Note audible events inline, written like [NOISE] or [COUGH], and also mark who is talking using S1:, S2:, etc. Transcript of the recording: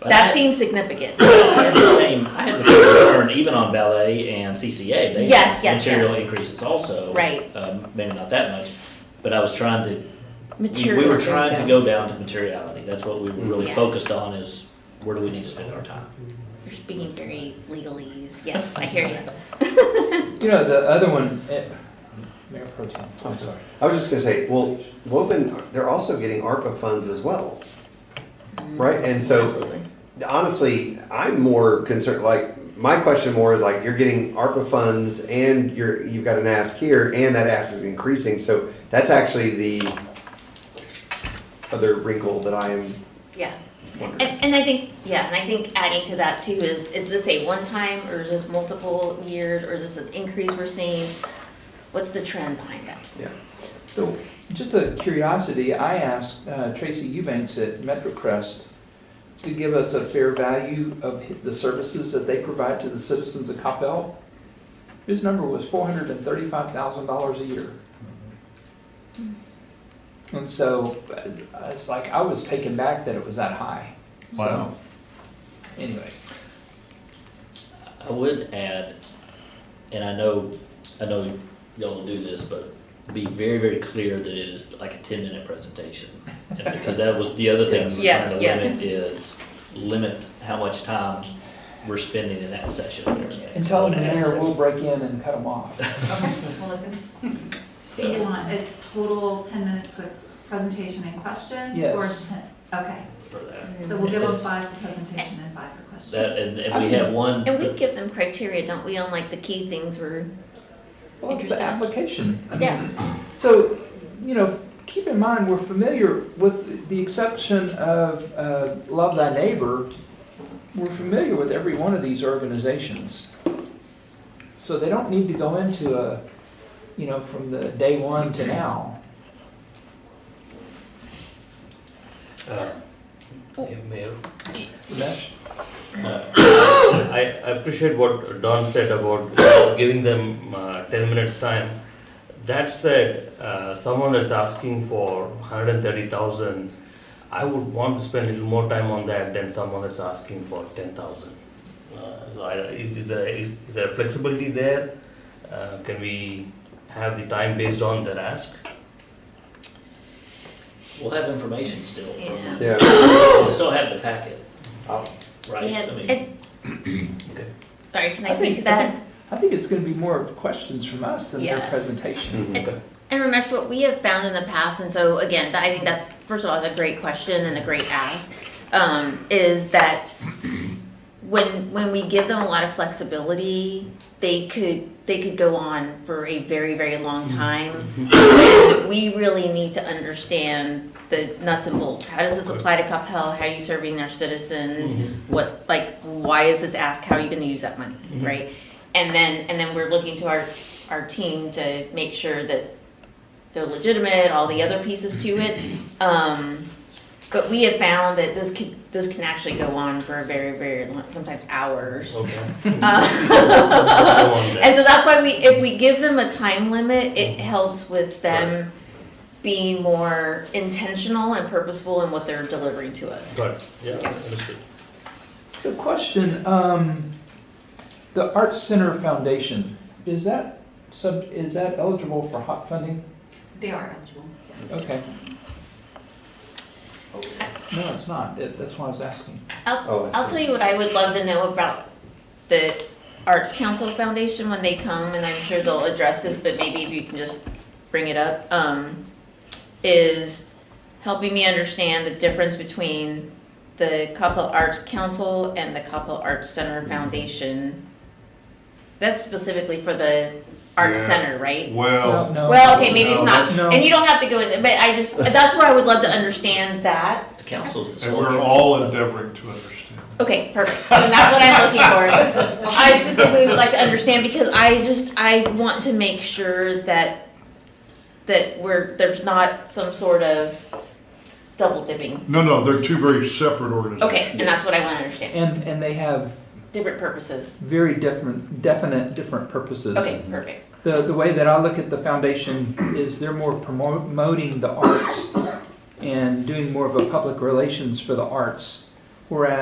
S1: But I-
S2: That seems significant.
S1: I had the same, I had the same concern even on ballet and CCA. They
S2: Yes,
S1: had
S2: yes,
S1: Material
S2: yes.
S1: increases also.
S2: Right.
S1: Um, maybe not that much, but I was trying to, [COUGHS] we-
S2: Material.
S1: we
S2: there
S1: were
S2: you
S1: trying to go down to materiality. That's what we were really
S2: Yes.
S1: focused on is where do we need to spend our time?
S2: You're speaking very legalese. Yes, I hear you.
S3: You know, the other one, eh, Mayor Pro Tem, I'm sorry.
S4: I was just gonna say, well, Woven, they're also getting ARPA funds as well. Right, and so
S2: Absolutely.
S4: honestly, I'm more concerned, like, my question more is like, you're getting ARPA funds and you're, you've got an ask here and that ask is increasing, so that's actually the other wrinkle that I am
S2: Yeah.
S4: wondering.
S2: And, and I think, yeah, and I think adding to that too is, is this a one-time or is this multiple years or is this an increase we're seeing? What's the trend behind that?
S4: Yeah,
S3: So, just a curiosity, I asked uh, Tracy Eubanks at MetroCrest to give us a fair value of hi- the services that they provide to the citizens of Coppell. His number was four hundred and thirty-five thousand dollars a year. And so, it's- it's like, I was taken back that it was that high. So,
S5: Wow.
S3: Anyway,
S1: I would add, and I know, I know y'all will do this, but be very, very clear that it is like a ten minute presentation. And Because that was the other thing we were trying
S2: Yes,
S1: to
S2: yes.
S1: limit is limit how much time we're spending in that session.
S3: and tell
S1: I
S3: them
S1: would
S3: the
S1: ask
S3: mayor
S1: that.
S3: will break in and cut them [LAUGHS] off.
S2: [LAUGHS]
S6: So you
S1: So,
S6: want a total ten minutes with presentation and questions? or
S3: Yes.
S6: 10 Okay,
S1: for that,
S6: so we'll give them
S1: Yes.
S6: five for presentation and five for questions.
S1: that, and, and we had one,
S2: And we give them criteria, don't we, on like the key things we're,
S3: Well, it's the
S2: Interesting.
S3: application.
S2: yeah,
S3: So, you know, keep in mind, we're familiar with, the exception of uh, Love Thy Neighbor, we're familiar with every one of these organizations. So they don't need to go into a, you know, from the day one to now.
S7: Uh, yeah, Mayor,
S3: Ramesh?
S7: uh, I I appreciate what Don said about you know, giving them uh, 10 minutes time. That said, uh, someone that's asking for 130,000, I would want to spend a little more time on that than someone that's asking for 10,000. Uh, so I- Is is there is- is there flexibility there? Uh, Can we have the time based on their ask?
S1: we'll have information still from them.
S4: yeah,
S1: We'll still have the packet,
S4: I'll-
S1: right? I
S2: and,
S1: mean, [COUGHS]
S2: and. Sorry, can I
S3: I think-
S2: speak to that?
S3: I think it's gonna be more of questions from us than their
S2: Yes.
S3: presentation.
S2: And Ramesh, what we have found in the past, and so again, I think that's first of all that's a great question and a great ask, um, is that when when we give them a lot of flexibility, they could they could go on for a very very long time. And we really need to understand the nuts and bolts. How does this apply to Capel? How are you serving their citizens?
S7: Mm-hmm.
S2: What like why is this ask? How are you going to use that money, right? And then and then we're looking to our our team to make sure that they're legitimate, all the other pieces to it. Um, but we have found that this could, this can actually go on for a very, very long, sometimes hours.
S7: Okay.
S2: Uh, [LAUGHS]
S7: Go on then.
S2: And so that's why we, if we give them a time limit, it helps with them being more intentional and purposeful in what they're delivering to us.
S7: Got it. Yeah, understood.
S3: So question, um, the Arts Center Foundation, is that sub, is that eligible for hot funding?
S6: They are eligible.
S3: Okay. No, it's not. That- That's why I was asking.
S4: Oh,
S2: I'll,
S4: I
S2: I'll
S4: see.
S2: tell you what I would love to know about the Arts Council Foundation when they come, and I'm sure they'll address this, but maybe if you can just bring it up, um, is helping me understand the difference between the Capel Arts Council and the Capel Arts Center Foundation. That's specifically for the Arts
S5: Yeah.
S2: Center, right?
S3: No,
S5: Well,
S3: no.
S2: Well, okay, maybe it's
S5: No,
S2: not,
S3: no.
S2: and you don't have to go in, but I just, that's where I would love to understand that.
S1: The council's.
S5: and we're all endeavoring to understand.
S2: Okay, perfect. And that's what I'm looking
S5: [LAUGHS]
S2: for. I specifically would like to understand because I just, I want to make sure that, that we're, there's not some sort of double dipping.
S5: No, no, they're two very separate
S2: Okay,
S5: organizations.
S2: and that's what I want to understand.
S3: And, and they have
S2: Different purposes.
S3: very different, definite, different purposes.
S2: Okay, perfect.
S3: The, the way that I look at the foundation is they're more promoting the arts and doing more of a public relations for the arts. Whereas